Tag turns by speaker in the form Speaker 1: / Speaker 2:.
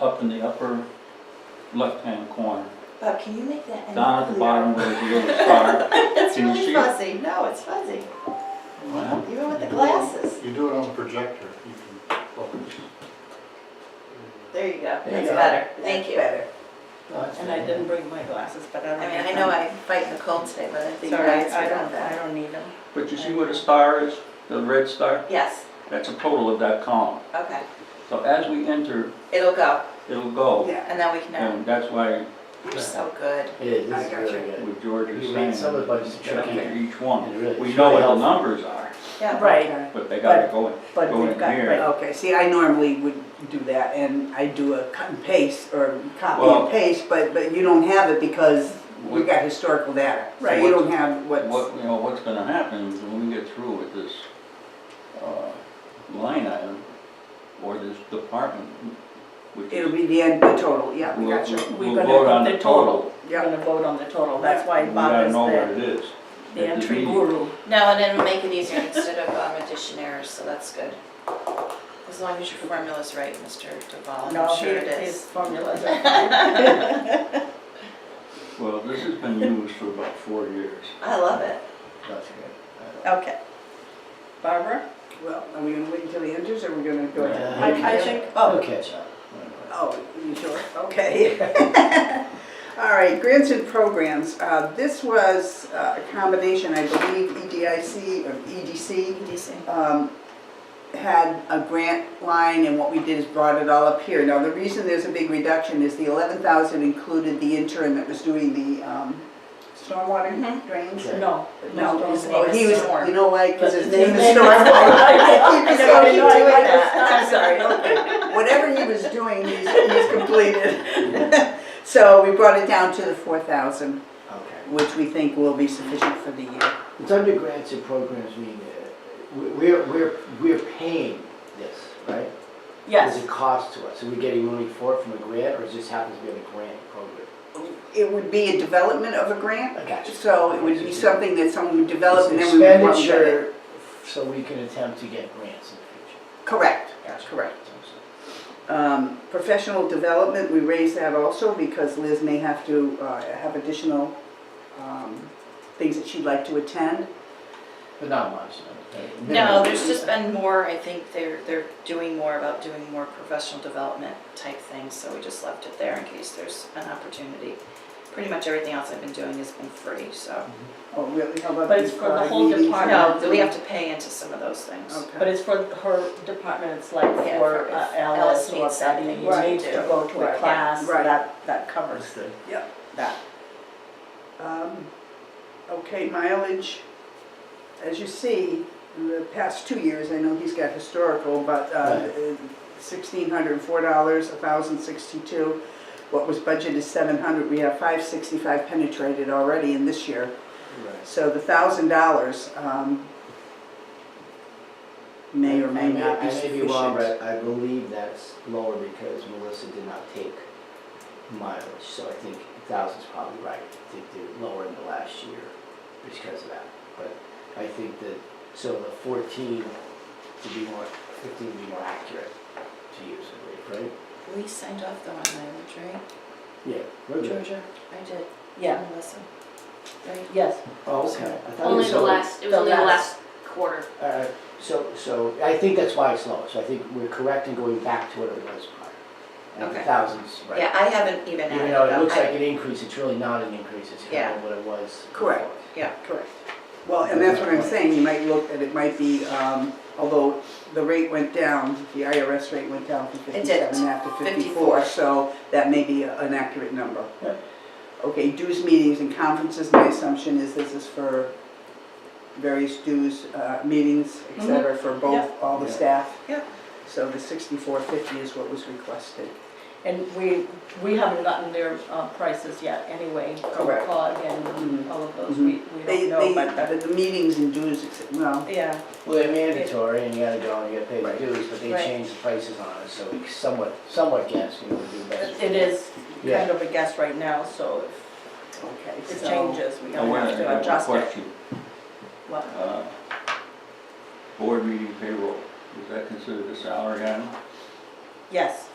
Speaker 1: up in the upper left-hand corner,
Speaker 2: Bob, can you make that? any
Speaker 1: down at the
Speaker 2: clearer?
Speaker 1: bottom where the little star.
Speaker 2: It's
Speaker 1: Can you
Speaker 2: really
Speaker 1: see it?
Speaker 2: fuzzy. No, it's fuzzy,
Speaker 1: Wow.
Speaker 2: even with the glasses.
Speaker 3: You do it on the projector, you can focus.
Speaker 2: There you go.
Speaker 4: There you
Speaker 2: That's
Speaker 4: go.
Speaker 2: better. Thank you.
Speaker 4: Better.
Speaker 3: That's
Speaker 4: And I didn't bring my glasses, but I
Speaker 2: I
Speaker 4: don't.
Speaker 2: mean,
Speaker 4: have
Speaker 2: I know
Speaker 4: them.
Speaker 2: I fight the cold today, but I think you
Speaker 4: Sorry,
Speaker 2: guys
Speaker 4: I
Speaker 2: are
Speaker 4: don't,
Speaker 2: on
Speaker 4: I
Speaker 2: that.
Speaker 4: don't need them.
Speaker 1: But you see where the star is, the red star?
Speaker 2: Yes,
Speaker 1: That's a total of that column.
Speaker 2: okay.
Speaker 1: So as we enter,
Speaker 2: It'll go,
Speaker 1: it'll go.
Speaker 4: Yeah.
Speaker 2: and then we can, know.
Speaker 1: And that's why
Speaker 2: you're so good.
Speaker 5: It is,
Speaker 4: I
Speaker 5: this is
Speaker 4: got
Speaker 5: really good.
Speaker 1: with George is
Speaker 5: You
Speaker 1: saying,
Speaker 5: read some of the budgets,
Speaker 1: check
Speaker 5: okay.
Speaker 1: each
Speaker 5: It
Speaker 1: one.
Speaker 5: really-
Speaker 1: We
Speaker 5: it's
Speaker 1: know
Speaker 5: really
Speaker 1: what the
Speaker 5: helpful.
Speaker 1: numbers are,
Speaker 2: Yeah.
Speaker 4: Right,
Speaker 1: but they gotta go in.
Speaker 4: but
Speaker 1: Go
Speaker 4: they've
Speaker 1: in
Speaker 4: got,
Speaker 1: here.
Speaker 4: right, okay, see, I normally would do that, and I do a cut and paste, or copy
Speaker 1: Well-
Speaker 4: and paste, but, but you don't have it because we
Speaker 1: What-
Speaker 4: got historical data, so
Speaker 1: Right.
Speaker 4: you don't have what's.
Speaker 1: What, you know, what's gonna happen is when we get through with this, uh, line item or this department, which
Speaker 4: It'll
Speaker 1: is.
Speaker 4: be the end, the total, yeah, we
Speaker 1: we'll-
Speaker 4: got you,
Speaker 1: we'll-
Speaker 6: We're
Speaker 1: We'll
Speaker 6: gonna
Speaker 1: vote on
Speaker 6: put
Speaker 1: the
Speaker 6: the
Speaker 1: total.
Speaker 6: We're
Speaker 4: yeah.
Speaker 6: gonna vote on the total, that's why
Speaker 1: We
Speaker 6: Bob
Speaker 1: gotta
Speaker 6: is
Speaker 1: know where it
Speaker 6: the,
Speaker 1: is.
Speaker 6: the
Speaker 1: at
Speaker 6: entry
Speaker 1: meeting.
Speaker 6: guru.
Speaker 2: No, and it'll make it easier instead of um, addition errors, so that's good. As long as your formula's right, Mr. Duval, and
Speaker 6: No,
Speaker 2: I'm sure it
Speaker 6: his- His
Speaker 2: is.
Speaker 6: formulas are fine.
Speaker 1: Well, this has been used for about four years.
Speaker 2: I love it.
Speaker 5: That's good.
Speaker 6: Okay. Barbara?
Speaker 4: Well, are we gonna wait until he enters, or are we gonna go?
Speaker 5: Yeah.
Speaker 4: I, I
Speaker 5: Okay.
Speaker 4: think,
Speaker 5: I'll
Speaker 4: oh,
Speaker 5: catch up.
Speaker 4: Oh, you sure? Okay. All right, grants and programs. Uh, This was uh, a combination, I believe, EDIC, or E EDC
Speaker 2: Decent.
Speaker 4: um, had a grant line, and what we did is brought it all up here. Now, the reason there's a big reduction is the 11,000 included the intern that was doing the um, stormwater
Speaker 2: Mhm.
Speaker 4: drains.
Speaker 5: Sure.
Speaker 6: No.
Speaker 4: No,
Speaker 6: Don't
Speaker 4: his
Speaker 6: vote.
Speaker 4: name, he was,
Speaker 2: Storm.
Speaker 4: you know why, because his
Speaker 6: His
Speaker 4: name is
Speaker 6: name is
Speaker 4: Storm. I keep
Speaker 2: I
Speaker 4: saying-
Speaker 2: know, I know, I know.
Speaker 4: I'm sorry, okay. Whatever he was doing, he's, he's completed. So we brought it down to the four thousand,
Speaker 5: Okay.
Speaker 4: which we think will be sufficient for the year.
Speaker 5: It's under grants and programs, meaning uh, we- we're, we're, we're paying this, right? There's
Speaker 6: Yes,
Speaker 5: a cost to us. Are we getting money for it from a grant or it just happens to be on a grant program?
Speaker 4: It would be a development of a grant,
Speaker 5: I got you.
Speaker 4: so it would be something that someone would develop and
Speaker 5: It's
Speaker 4: then we would run with it.
Speaker 5: Expenditure so we can attempt to get grants in the
Speaker 4: Correct,
Speaker 5: future. That's
Speaker 4: correct.
Speaker 5: Sounds
Speaker 4: Um, Professional development, we raised that also because Liz may have to uh, have additional um, things that she'd like to attend.
Speaker 5: good. But not much. no.
Speaker 2: No, there's just been more, I think they're, they're doing more about doing more professional development type things, so we just left it there in case there's an opportunity. Pretty much everything else I've been doing has been free, so,
Speaker 4: Oh, really? How about
Speaker 6: But it's
Speaker 4: these,
Speaker 6: for the
Speaker 4: uh,
Speaker 6: whole
Speaker 4: meetings?
Speaker 6: department.
Speaker 2: no, we have to pay into some of those things.
Speaker 5: Oh.
Speaker 4: Okay.
Speaker 6: but it's for her department, it's like
Speaker 2: Yeah,
Speaker 6: for
Speaker 2: for
Speaker 6: uh,
Speaker 2: if Alice
Speaker 6: Alice or
Speaker 2: needs
Speaker 6: something,
Speaker 2: something to
Speaker 6: needs to
Speaker 2: do.
Speaker 6: go to
Speaker 2: Right,
Speaker 6: a
Speaker 2: yeah.
Speaker 6: class,
Speaker 4: Right.
Speaker 6: that, that
Speaker 5: That's
Speaker 6: covers
Speaker 5: good.
Speaker 6: that.
Speaker 4: Um, Okay, mileage, as you see, in the past two years, I know he's got historical, but uh,
Speaker 5: Right.
Speaker 4: sixteen hundred and four dollars, a thousand sixty-two. What was budgeted is seven hundred, we have five sixty-five penetrated already in this year.
Speaker 5: Right.
Speaker 4: So the thousand dollars, um, may or may not be
Speaker 5: I may be wrong,
Speaker 4: sufficient.
Speaker 5: but I believe that's lower because Melissa did not take mileage, so I think a thousand's probably right. I think they're lower in the last year because of that. But I think that, so the fourteen to be more, fifteen would be more accurate to use, I believe, right?
Speaker 2: We signed off though on mileage, right?
Speaker 5: Yeah. we're good.
Speaker 2: Georgia, I did.
Speaker 6: Yeah,
Speaker 2: Melissa, right?
Speaker 6: yes,
Speaker 5: Oh, okay. I thought it
Speaker 7: Only
Speaker 5: was
Speaker 7: the
Speaker 5: over.
Speaker 7: last, it was
Speaker 6: the
Speaker 7: only the
Speaker 6: last.
Speaker 7: last quarter.
Speaker 5: All right, so, so I think that's why it's lower, so I think we're correct in going back to what it was prior. And the
Speaker 2: Okay.
Speaker 5: thousands, right?
Speaker 2: Yeah, I haven't even added
Speaker 5: Even
Speaker 2: it
Speaker 5: though it
Speaker 2: up.
Speaker 5: looks
Speaker 2: I-
Speaker 5: like an increase, it's really not an increase, it's kind
Speaker 2: Yeah.
Speaker 5: of what it was.
Speaker 4: Correct.
Speaker 5: before.
Speaker 4: Correct. Well, and that's what I'm saying, you might look, that it might be, um, although the rate went down, the IRS rate went down from
Speaker 2: It did.
Speaker 4: fifty-seven after
Speaker 2: 54.
Speaker 4: fifty-four, so that may be a- an accurate number.
Speaker 5: Yeah.
Speaker 4: Okay, dues, meetings, and conferences, my assumption is this is for various dues, uh, meetings, et
Speaker 6: Mhm.
Speaker 4: cetera, for both,
Speaker 6: Yeah.
Speaker 4: all the
Speaker 5: Yeah.
Speaker 4: staff.
Speaker 2: Yeah.
Speaker 4: So the sixty-four fifty is what was requested.
Speaker 6: and we, we haven't gotten their uh, prices yet anyway,
Speaker 4: Correct.
Speaker 6: COG and
Speaker 4: Mhm.
Speaker 6: all of those,
Speaker 4: Mhm.
Speaker 6: we, we don't
Speaker 4: They,
Speaker 6: know, but,
Speaker 4: they,
Speaker 6: that-
Speaker 4: the meetings and dues, et cetera, well,
Speaker 6: yeah,
Speaker 5: Well, they're mandatory and you gotta go and you gotta pay
Speaker 4: Right.
Speaker 5: the dues, but they
Speaker 6: Right.
Speaker 5: changed the prices on us, so we somewhat, somewhat guess, you know, we do best.
Speaker 6: it is
Speaker 5: Yeah.
Speaker 6: kind of a guess right now, so
Speaker 4: okay,
Speaker 6: if
Speaker 4: so.
Speaker 6: it changes, we
Speaker 1: Now,
Speaker 6: don't
Speaker 1: wait a
Speaker 6: have
Speaker 1: minute, I
Speaker 6: to
Speaker 1: have a
Speaker 6: adjust it.
Speaker 1: question.
Speaker 6: What?
Speaker 1: Uh, Board meeting payroll, is that considered a salary item?
Speaker 6: Yes,